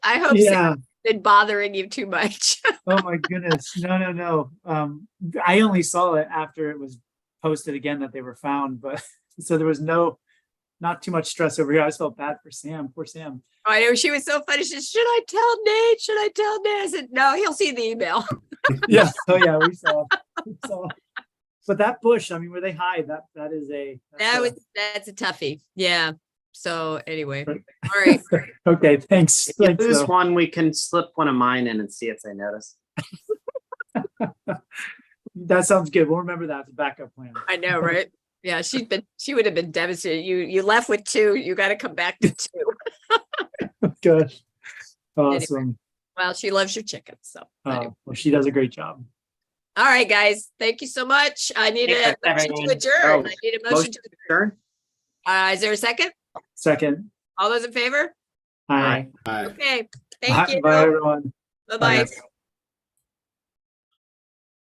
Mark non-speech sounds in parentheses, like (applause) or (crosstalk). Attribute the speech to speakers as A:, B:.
A: I (laughs) hope so.
B: Yeah.
A: Been bothering you too much. (laughs)
B: Oh my goodness. No, no, no. Um, I only saw it after it was posted again that they were found, but (laughs) so there was no, not too much stress over here. I just felt bad for Sam.
A: (laughs)
B: Poor Sam.
A: I know she was so funny. She said, Should I tell Nate? Should I tell Nate? I said, No, he'll see the email. (laughs)
B: Yeah. Oh yeah, we saw. we saw. But that bush, I mean, where they hide, that that is a. that's
A: That
B: a-
A: was that's a toughie. Yeah. So anyway,
B: Right.
A: all right.
B: (laughs) Okay, thanks.
C: If you
B: Thanks,
C: lose
B: though.
C: one, we can slip one of mine in and see if they notice.
B: That sounds good. We'll remember that as a backup plan.
A: I know, right? Yeah, she'd been she would have been devastated. You you left with two. You got to come back to two.
B: Gosh. Awesome.
A: Well, she loves your chicken. So anyway.
B: Uh, Well, she does a great job.
A: all right, guys. Thank you so much. I need a motion
C: Thanks,
A: to
C: everyone.
A: adjourn.
C: Oh,
A: I need a motion
C: Motion
A: to
C: adjourned?
A: uh is there a second?
B: Second.
A: All those in favor?
B: Hi.
A: Okay.
B: Bye,
A: Thank you.
B: Bye, everyone.
A: Bye-bye.
B: Bye.